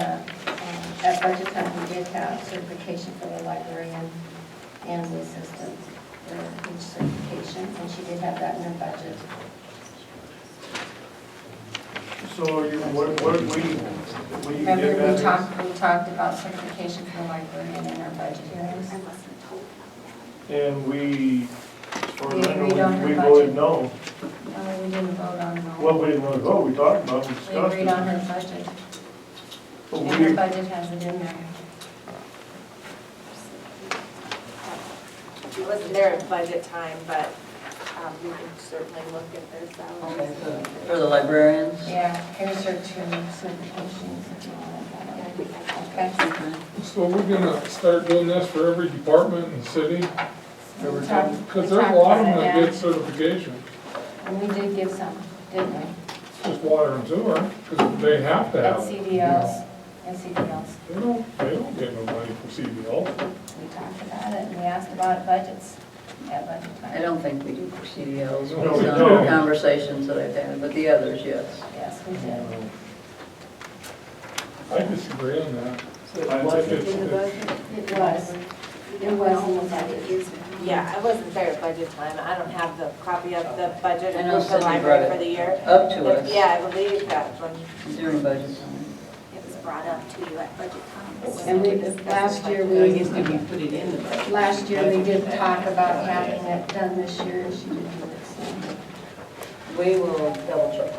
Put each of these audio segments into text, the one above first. uh, at budget time, we did have certification for the librarian and the assistant for each certification, and she did have that in her budget. So you, what, what we, we give Remember, we that, talked, we talked about certification for the librarian in our budget hearings? and we, as far as I We agreed on know, her we budget. voted no. No, we didn't vote on that. Well, we didn't really vote, we talked about, it, we We discussed agreed on it. her budget, But and her we, budget has it in there. It wasn't there at budget time, but um, you can certainly look at their Okay, salaries. for- For the librarians? Yeah, here's her two certifications if you want to. Okay. Okay. So we're gonna start doing this for every department in the city? We talked- Because we there's a talked lot about of them that it, get certification, yeah. And we did give some, didn't we? It's just water and sewer, because they have to At have. it, you CDLs, know. at CDLs. They don't, they don't get no money from CDL. We talked about it, and we asked about budgets at budget I time. don't think we do for CDLs, No, we it's on don't. conversations that I've had, but the others, yes. Yes, we did. I disagree on that. So I why- think it's- it's- It was, it was in the budget. Yeah, I wasn't there at budget time. I don't have the copy of the budget I know for the Cindy brought library it for the year. Up to But us Yeah, I believe that when during budget time. it was brought up to you at budget time. And we, last year, we, put it in the budget? last year, we did talk about having it done this year, and she did do it, We will double check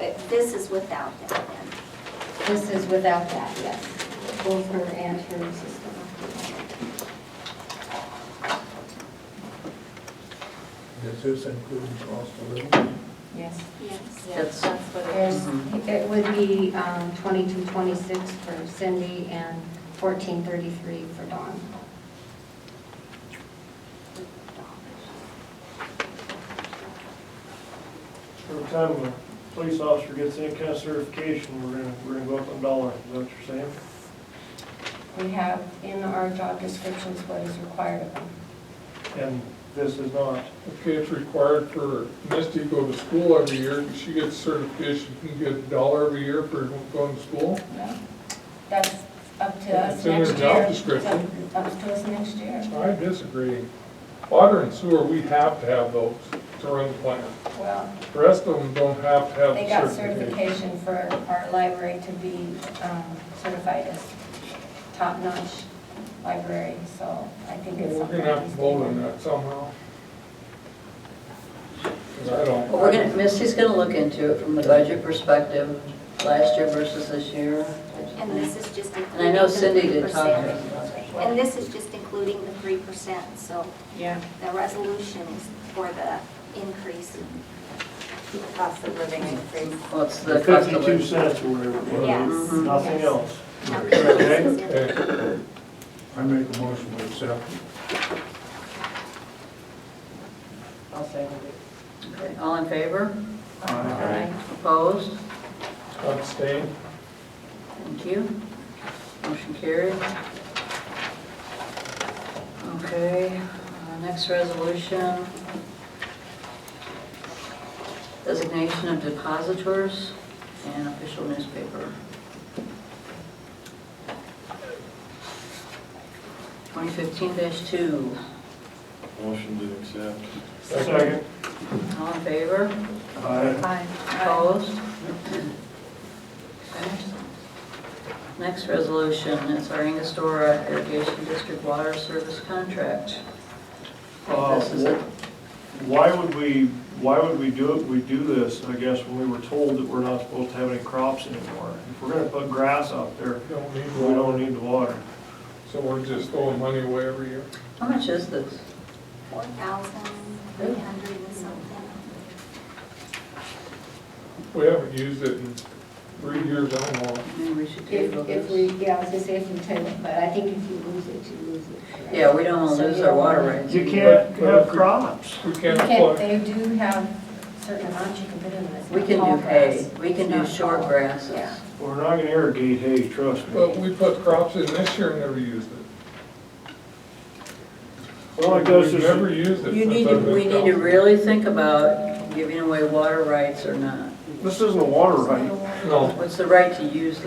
that. This is without that then? so. This is without that, yes, both her and her assistant. Does this include cost of living? Yes. Yeah, that's what it is. There's, it would be um, 2226 for Cindy and 1433 for Dawn. every time a police officer gets any kind of certification, we're gonna, we're gonna go up a dollar, is that what you're saying? We have in our job descriptions what is required of them. And this is not. Okay, it's required for Misty to go to school every year, she gets certification, she can get a dollar every year for going to school. That's up to us It's in next year. their job description. It's Up up to us next year. I disagree. Water and sewer, we have to have those to run the plant. Well, The rest of them don't have to have they got the certification certification. for our library to be um, certified as top-notch library, so I think it's We're something. gonna have to vote on that somehow. 'Cause I don't. Well, we're gonna, Misty's gonna look into it from the budget perspective, last year versus this year. And this is just including. And I know the Cindy did talk 3%. to us about that. And this is just including the three percent, so Yeah, the resolution is for the increase. cost of living increase. Well, it's the cost of Fifty-two living. cents or whatever, it Yes. Mm-hmm. was. nothing Yes. else. No, this Okay. is different. Okay, I make a motion to accept. I'll say Okay, All in favor? Aye. Opposed? abstain. Thank you. Motion carried. Okay, uh, next resolution. Designation of depositors and official newspaper. 2015-2. Motion to accept. Second. All in favor? Aye. Opposed? Okay. Next resolution is our Angostura Irrigation District Water Service Contract. Uh, This is it. Why would we, why would we do it, we do this, I guess, when we were told that we're not supposed to have any crops anymore? If we're gonna put grass out there, Don't need we one. don't need the water. So we're just throwing money away every year. How much is this? Four thousand three hundred and something. We haven't used it in three years, I don't know. Maybe we should table If, if we, this. yeah, I was gonna say if we table, it, but I think if you lose it, you lose it. right? Yeah, we don't want So to lose you our don't water wanna- rights. You can't have crops. We You can't can't, plug, they do have certain amounts you can put in this. We can do hay, we can do short grasses. Yeah. We're not gonna irrigate hay, trust me. but we put crops in this year and never used it. Well, it goes We've never to, used it. You since need to, I've been we need to gone. really think about giving away water rights or not. this isn't a water right. No. What's the right to use